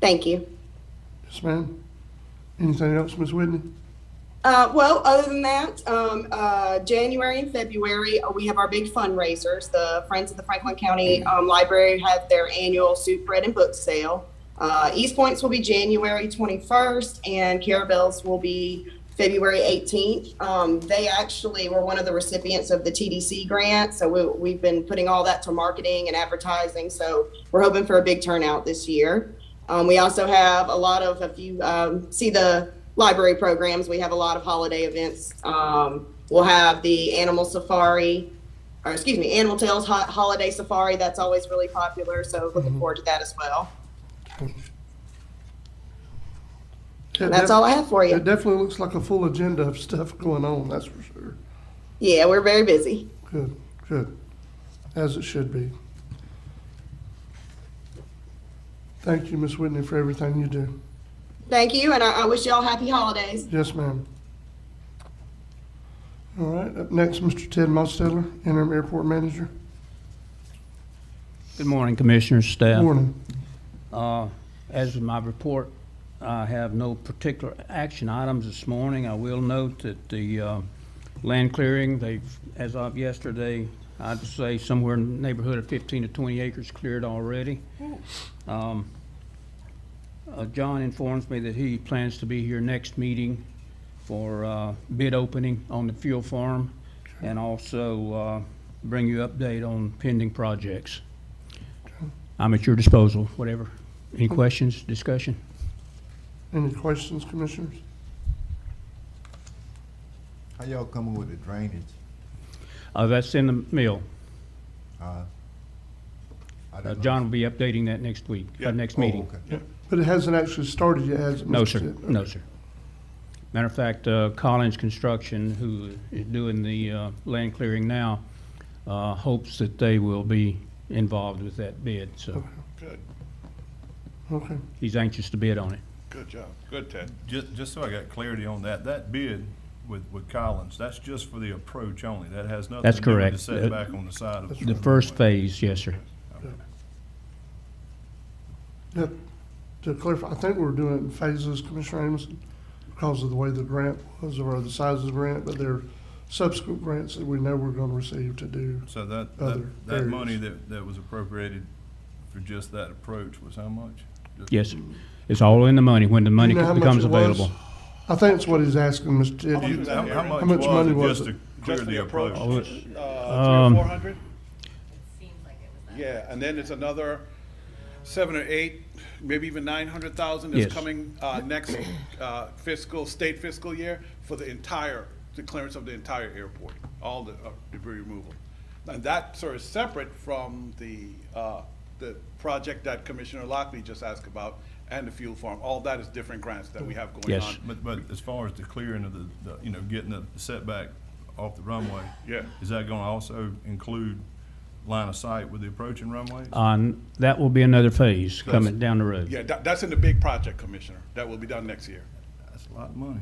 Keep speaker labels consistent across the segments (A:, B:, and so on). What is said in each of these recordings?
A: Thank you.
B: Yes, ma'am. Anything else, Ms. Whitney?
A: Uh, well, other than that, um, uh, January and February, uh, we have our big fundraisers. The Friends of the Franklin County um, Library have their annual soup, bread, and book sale. Uh, East Points will be January 21st, and Carabelle's will be February 18th. Um, they actually were one of the recipients of the TDC grant, so we, we've been putting all that to marketing and advertising. So we're hoping for a big turnout this year. Um, we also have a lot of, if you um, see the library programs, we have a lot of holiday events. Um, we'll have the animal safari, or excuse me, Animal Tales ho- Holiday Safari. That's always really popular. So looking forward to that as well. And that's all I have for
B: It
A: you.
B: definitely looks like a full agenda of stuff going on, that's for sure.
A: Yeah, we're very busy.
B: Good, good. As it should be. Thank you, Ms. Whitney, for everything you do.
A: Thank you, and I, I wish you all happy holidays.
B: Yes, ma'am. All right, up next, Mr. Ted Mosteller, interim airport manager.
C: Good morning, Commissioners, staff.
B: Morning.
C: Uh, As with my report, I have no particular action items this morning. I will note that the uh, land clearing, they've, as of yesterday, I'd say somewhere in the neighborhood of 15 to 20 acres cleared already. Um, uh, John informs me that he plans to be here next meeting for uh, bid opening on the fuel farm and also uh, bring you update on pending projects. I'm at your disposal, whatever. Any questions, discussion?
B: Any questions, commissioners?
D: How y'all coming with the drainage?
C: Uh, that's in the mill.
D: Uh, I
C: Uh,
D: don't know.
C: John will be updating that next week, uh, next
D: Oh,
C: meeting.
D: okay.
B: Yeah. But it hasn't actually started yet, has it?
C: No,
B: Mr.
C: sir,
B: Ted?
C: no, sir. Matter of fact, uh, Collins Construction, who is doing the, uh, land clearing now, uh, hopes that they will be involved with that bid, so
E: Good,
B: Okay,
C: he's anxious to bid on it.
E: good job, good, Ted.
F: Just, just so I got clarity on that, that bid with, with Collins, that's just for the approach only. That has nothing
C: That's
F: to do with
C: correct.
F: the setback on the side of.
C: The first phase, yes, sir.
B: yeah, to clarify, I think we were doing it in phases, Commissioner Amison, because of the way the grant was, or the size of the grant, but there are subsequent grants that we know we're gonna receive to do.
F: So that,
B: Other
F: that, that money
B: areas.
F: that, that was appropriated for just that approach was how much? Just-
C: Yes, sir. It's all in the money, when the money
B: You know how much
C: becomes
B: it was?
C: available.
B: I think that's what he's asking, Mr. Ted.
E: much was
F: How,
E: that,
F: how
E: Aaron?
B: How much
F: much
B: money was
F: was it just
B: it?
F: to clear the approach?
E: Uh, three or
C: Um,
E: four hundred?
G: It seems like it was that.
E: Yeah, and then there's another seven or eight, maybe even nine hundred thousand
C: Yes.
E: is coming, uh, next, uh, fiscal, state fiscal year for the entire, the clearance of the entire airport, all the uh, debris removal. And that sort of separate from the, uh, the project that Commissioner Lockley just asked about and the fuel farm. All that is different grants that we have going
C: Yes.
E: on.
F: But, but as far as the clearing of the, the, you know, getting the setback off the runway.
E: Yeah.
F: Is that gonna also include line of sight with the approaching runways?
C: On, uh, that will be another phase coming down the road.
E: Yeah, that, that's in the big project, Commissioner. That will be done next year.
F: That's a lot of money.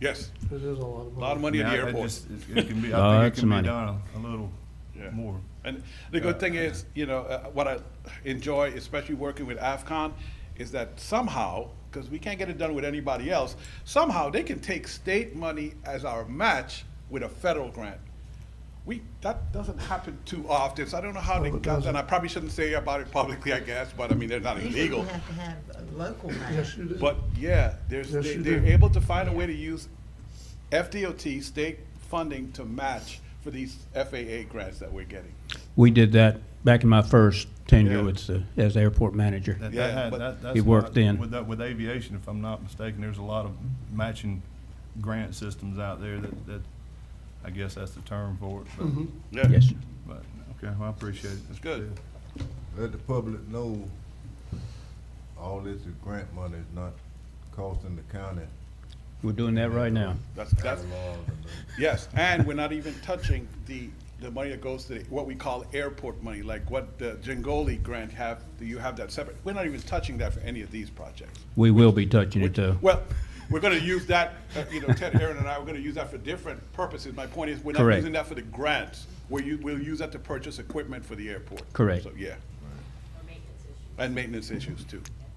E: Yes,
B: It is a lot of
E: a lot
B: money.
E: of money at
F: Yeah,
E: the
F: I- I
E: airport.
F: just- it- It can be,
C: Oh,
F: I think
C: that's
F: it can be
C: money.
F: done a a little
E: Yeah.
F: more.
E: And the good thing is, you know, uh, what I enjoy, especially working with AFCON, is that somehow, because we can't get it done with anybody else, somehow they can take state money as our match with a federal grant. We, that doesn't happen too often, so I don't know how they
B: it
E: got,
B: doesn't.
E: that. and I probably shouldn't say about it publicly, I guess, but I mean, they're not
G: Usually
E: illegal.
G: You have to have a local match.
B: Yes, you did.
E: But yeah, there's,
B: Yes,
E: they-
B: you
E: they're
B: do.
E: able to find a way to use FDOT state funding to match for these FAA grants that we're getting.
C: We did that back in my first tenure
E: Yeah.
C: with, the- as airport manager.
F: That- that
E: Yeah,
F: had-
E: but-
F: that- that's
C: It worked
F: not-
C: then.
F: With that, with aviation, if I'm not mistaken, there's a lot of matching grant systems out there that, that, I guess that's the term for it, but,
E: Yeah.
C: Yes, sir.
F: but, okay, well, I appreciate it. That's
E: Mm-hmm. Good.
D: Let the public know all this is grant money is not costing the county. uh,
C: We're doing that right now.
E: That's, that's,
D: a lot of money.
E: Yes, and we're not even touching the, the money that goes to the- what we call airport money, like what the Jengoli grant have, do you have that separate? We're not even touching that for any of these projects.
C: We will be touching it, though.
E: Well, we're gonna use that, uh, you know, Ted, Aaron and I, we're gonna use that for different purposes. My point is, we're not
C: Correct.
E: using that for the grants. We're, u- we'll use that to purchase equipment for the airport.
C: Correct.
E: So, yeah,
G: Or maintenance issues.
E: and maintenance issues too.